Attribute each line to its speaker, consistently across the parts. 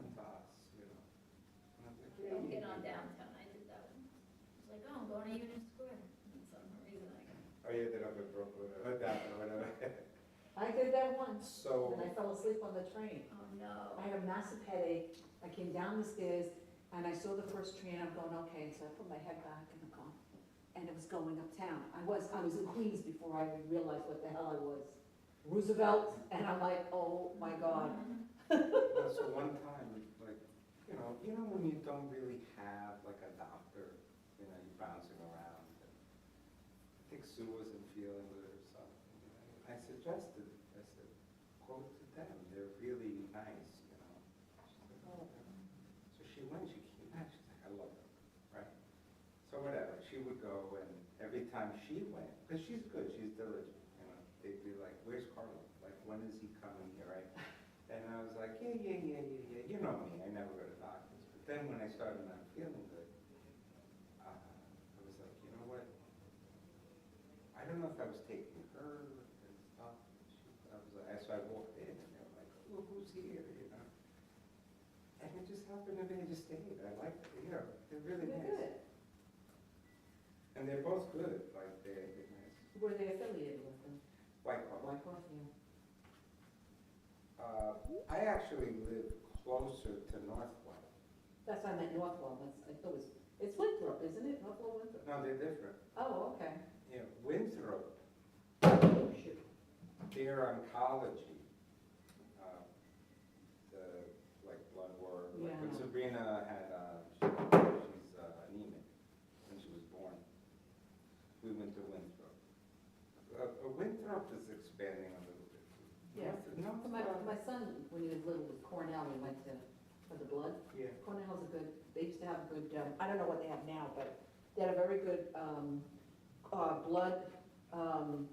Speaker 1: oh,
Speaker 2: Oh,
Speaker 3: I did that once, and I
Speaker 2: So,
Speaker 3: fell asleep on the train.
Speaker 1: Oh, no.
Speaker 3: I had a massive headache, I came down the stairs, and I saw the first train, I'm going, okay, so I put my head back in the car, and it was going uptown. I was, I was in Queens before I even realized what the hell I was. Roosevelt, and I'm like, oh my God.
Speaker 2: that's the one time, like, you know, you know when you don't really have like a doctor, you know, you're bouncing around. and I think Sue wasn't feeling good or something. you know. I suggested, I said, go to them, they're really nice, you know. She said, "Oh, yeah." So she went, she came back, she's like, I love them, right? So whatever, she would go and every time she went, because she's good, she's diligent, you know, they'd be like, where's Carlo? Like, when is he coming here, right? And I was like, yeah, yeah, yeah, yeah, yeah, you know me, I never go to doctors. But then when I started not feeling good, uh, I was like, you know what? I don't know if I was taking her and stuff. She- I was like, so I walked in and they were like, oh, who's here, you know? And it just happened to be, I just stayed, I liked, it, you know, they're really nice.
Speaker 3: Good.
Speaker 2: And they're both good, like, they're, they're nice.
Speaker 3: Were they affiliated with them?
Speaker 2: White Claw.
Speaker 3: White Horse, yeah.
Speaker 2: Uh, I actually live closer to North White.
Speaker 3: That's why I meant Northwell, that's, I thought it was, it's Winthrop, isn't it? Northwell Winthrop?
Speaker 2: No, they're different.
Speaker 3: Oh, okay.
Speaker 2: Yeah, Winthrop,
Speaker 3: Oh, shoot.
Speaker 2: their oncology, uh, the, like, blood work, like, when
Speaker 3: Yeah.
Speaker 2: Sabrina had, uh, she- she's uh, anemic when she was born, we went to Winthrop. Uh, uh, Winthrop is expanding a little bit.
Speaker 3: Yeah.
Speaker 2: North- North
Speaker 3: My,
Speaker 2: White-
Speaker 3: my son, when he was little, was Cornell, we went to, for the blood.
Speaker 2: Yeah.
Speaker 3: Cornell's a good, they used to have a good, um, I don't know what they have now, but they had a very good, um, uh, blood, um,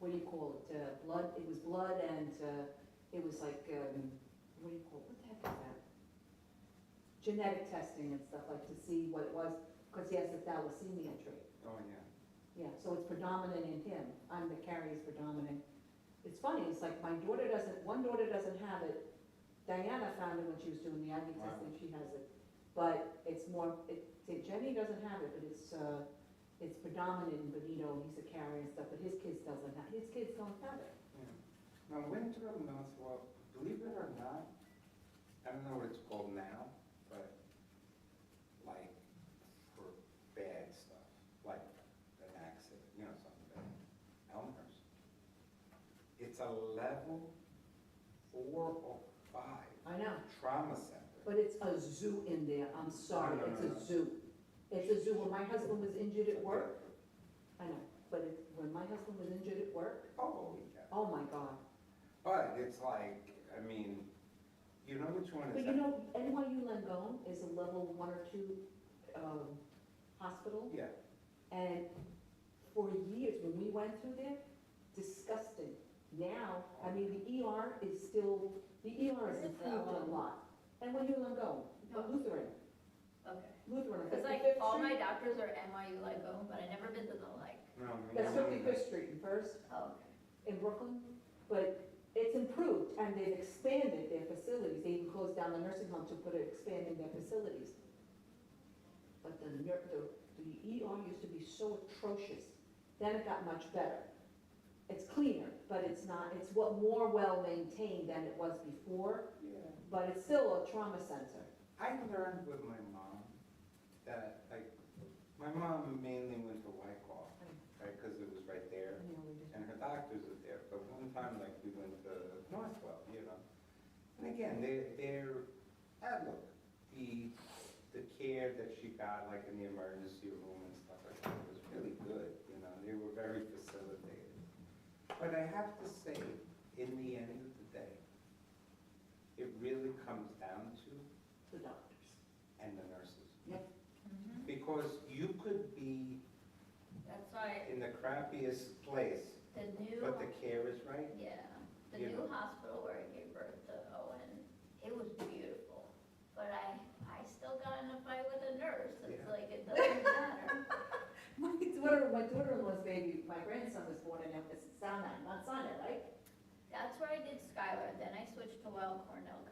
Speaker 3: what do you call it, uh, blood, it was blood and, uh, it was like, um, what do you call, it? what the heck is that? Genetic testing and stuff, like to see what it was, because he has a thalassemia trait.
Speaker 2: Oh, yeah.
Speaker 3: Yeah, so it's predominant in him. I'm the carrier is predominant. It's funny, it's like my daughter doesn't, one daughter doesn't have it. Diana found it when she was doing the IV
Speaker 2: Wow.
Speaker 3: testing, she has it. But it's more, it, see, Jenny doesn't have it, but it's, uh, it's predominant in Benito, and he's a carrier and stuff, but his kids doesn't have, his kids don't have it.
Speaker 2: Yeah. Now, Winthrop, Northwell, believe it or not, I don't know what it's called now, but like for bad stuff, like an accident, you know, something bad, Elmer's. It's a level four or five
Speaker 3: I know,
Speaker 2: trauma center.
Speaker 3: but it's a zoo in there, I'm sorry,
Speaker 2: No, no,
Speaker 3: it's
Speaker 2: no, no.
Speaker 3: a zoo. It's a zoo. When my husband was injured at work, I know, but it, when my husband was injured at work,
Speaker 2: Oh, yeah.
Speaker 3: oh my God.
Speaker 2: But it's like, I mean, you know which one is
Speaker 3: But
Speaker 2: that?
Speaker 3: you know, NYU Langone is a level one or two um, hospital,
Speaker 2: Yeah,
Speaker 3: and for years, when we went through there, disgusting. Now, I mean, the ER is still, the ER has
Speaker 1: Is it
Speaker 3: improved a
Speaker 1: that one?
Speaker 3: lot. NYU Langone,
Speaker 1: No.
Speaker 3: Lutheran,
Speaker 1: Okay.
Speaker 3: Lutheran.
Speaker 1: Because like
Speaker 3: 55th
Speaker 1: all my
Speaker 3: Street.
Speaker 1: doctors are NYU like oh, but I never been to the like.
Speaker 2: no, me.
Speaker 3: That's Fifty-Fifth Street in First,
Speaker 1: Oh, okay.
Speaker 3: in Brooklyn, but it's improved, and they've expanded their facilities. They even closed down the nursing home to put it, expanding their facilities. But the, nur- the, the ER used to be so atrocious, then it got much better. It's cleaner, but it's not, it's what, more well-maintained than it was before,
Speaker 2: Yeah.
Speaker 3: but it's still a trauma center.
Speaker 2: I learned with my mom that, like, my mom mainly went to Wyckoff, right, because it was right there, and her doctors were there, but one time, like, we went to Northwell, you know? And again, they're, they're, ah, look, the, the care that she got, like, in the emergency room and stuff like that was really good, you know, they were very facilitated. But I have to say, in the end of the day, it really comes down to
Speaker 3: The doctors.
Speaker 2: and the nurses.
Speaker 3: Yep.
Speaker 1: Mhm.
Speaker 2: Because you could be
Speaker 1: That's why
Speaker 2: in the crappiest place,
Speaker 1: the
Speaker 2: but the
Speaker 1: new,
Speaker 2: care is right.
Speaker 1: yeah, the
Speaker 2: You know.
Speaker 1: new hospital where I gave birth to Owen, it was beautiful. But I, I still got in a fight with a nurse. It's
Speaker 2: Yeah.
Speaker 1: like, it doesn't matter.
Speaker 3: My daughter, my daughter-in-law's baby, my grandson was born in, it's Sinai, not Sinai, right?
Speaker 1: That's where I did Skylar, then I switched to Weill Cornell